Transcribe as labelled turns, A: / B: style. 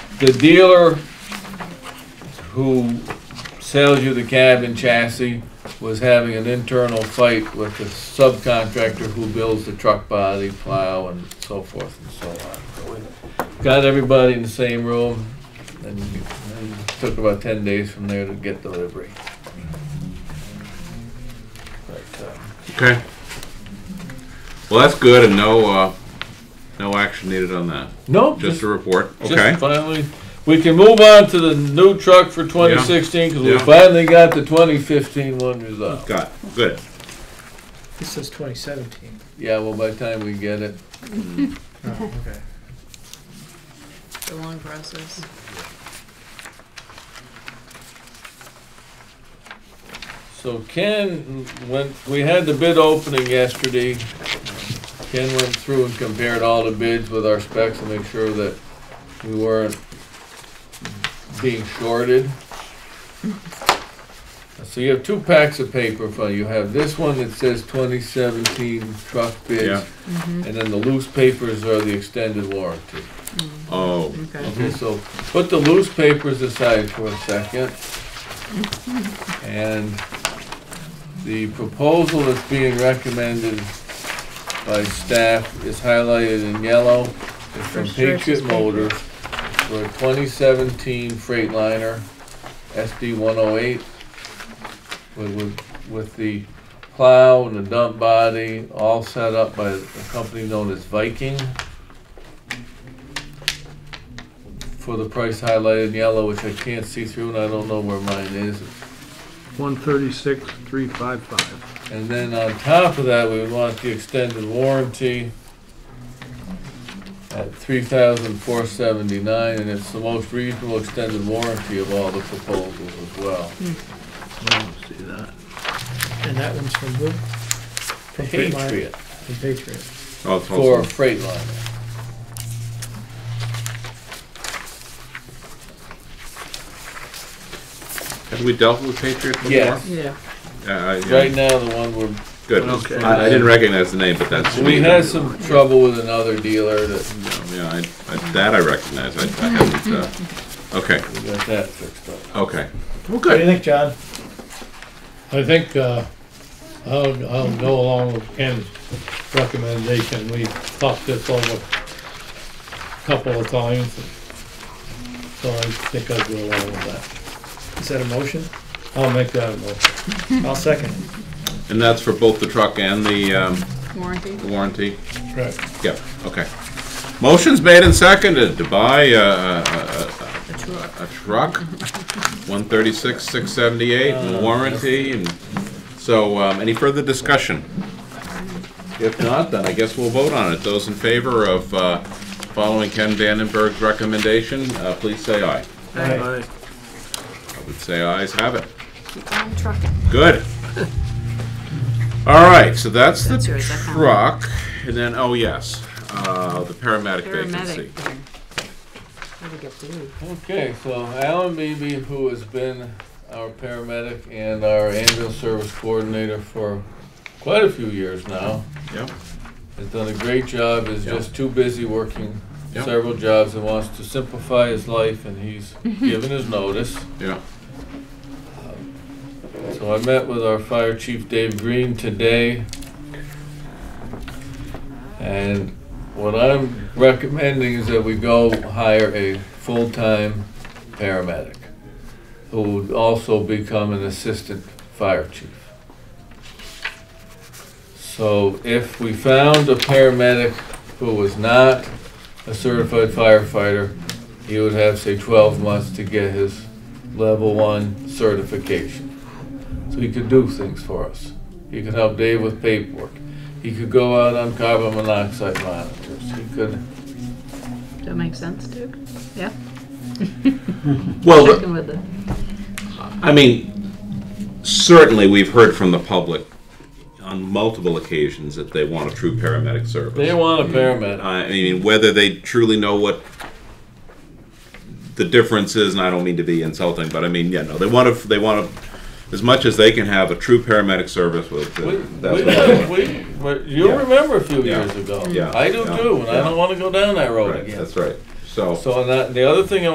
A: the dealer who sells you the cab and chassis was having an internal fight with the subcontractor who builds the truck body, plow, and so forth and so on. So we Got everybody in the same room, and and it took about ten days from there to get delivery. But, uh,
B: Okay. Well, that's good, and no, uh, no action needed on that.
A: Nope,
B: Just
A: just
B: a report. Okay.
A: Just finally, we can move on to the new truck for 2016 because we
B: Yeah.
A: finally got the 2015 one resolved.
B: Got it. good.
C: This says twenty seventeen.
A: Yeah, well, by the time we get it,
C: Oh, okay.
D: It's a long process.
A: so Ken went. We had the bid opening yesterday. Ken went through and compared all the bids with our specs to make sure that we weren't being shorted. So you have two packs of paper. For you have this one that says 2017 truck bids.
B: Yeah.
A: And then the loose papers are the extended warranty.
B: Oh,
D: Okay.
A: Okay, so put the loose papers aside for a second. And the proposal that's being recommended by staff is highlighted in yellow. It's from
D: First choice
A: Patriot
D: is paper.
A: Motors for a 2017 Freightliner SD 108 with, with, with the plow and the dump body, all set up by a company known as Viking. For the price highlighted in yellow, which I can't see through and I don't know where mine is.
E: One thirty-six, three five five.
A: And then on top of that, we would want the extended warranty at three thousand four seventy-nine, and it's the most reasonable extended warranty of all the proposals as well.
E: I don't see that.
C: And that one's from who? From Freightliner?
A: Patriot
C: From Patriot.
B: oh, it's
A: for
B: also,
A: Freightliner.
B: have we dealt with Patriot before?
A: Yes.
D: Yeah.
B: Uh, Uh, yeah.
A: Right now, the one we're,
B: Good.
E: Okay.
B: I, I didn't recognize the name, but that's.
A: we had some trouble with another dealer that
B: Yeah, I, I, that I recognize. I, I haven't. Uh, okay.
A: we got that fixed up.
B: Okay.
E: Well,
C: What do
E: good.
C: you think, John?
F: I think, uh, I'll, I'll go along with Ken's recommendation, we talked this over a couple of times. So I think I'll go along with
C: Is that a motion?
F: that, I'll make that a motion.
C: I'll second.
B: And that's for both the truck and the um,
D: Warranty?
B: warranty.
F: Right.
B: Yeah. Okay. Motion's made and seconded to buy uh, a, a,
D: A truck.
B: a truck, one thirty-six, six seventy-eight, and warranty, and, so, um, any further discussion? If not, then I guess we'll vote on it. Those in favor of, uh, following Ken Vandenberg's recommendation, uh, please say aye.
E: Aye.
B: I would say ayes have it.
D: Keep on trucking.
B: Good. All right, so that's the
D: That's yours, I found it.
B: truck, and then, oh, yes, uh, the paramedic
D: Paramedic.
B: vacancy.
D: there. Gotta get through.
A: Okay, so Alan Beebe, who has been our paramedic and our ambulance service coordinator for quite a few years now,
B: Yep,
A: has done a great job, is
B: Yeah.
A: just too busy working
B: Yeah.
A: several jobs and wants to simplify his life, and he's given his notice.
B: yeah,
A: So I met with our fire chief, Dave Green, today. And what I'm recommending is that we go hire a full-time paramedic who would also become an assistant fire chief. So if we found a paramedic who was not a certified firefighter, he would have, say, 12 months to get his level one certification so he could do things for us. He could help Dave with paperwork. He could go out on carbon monoxide monitors. He could.
D: Does that make sense, Duke? Yeah?
B: well, the-
D: Checking with the,
B: I mean, certainly we've heard from the public on multiple occasions that they want a true paramedic service.
A: They want a paramedic.
B: I mean, whether they truly know what the difference is, and I don't mean to be insulting, but I mean, yeah, no, they want to, they want to, as much as they can have a true paramedic service with. uh,
A: We,
B: that's
A: we,
B: what they want.
A: we, but you
B: Yeah.
A: remember a few
B: Yeah.
A: years ago.
B: Yeah.
A: I do
B: Yeah.
A: too, and I
B: Yeah.
A: don't want to go down that road
B: Right,
A: again.
B: That's right.
A: So and that, the other thing I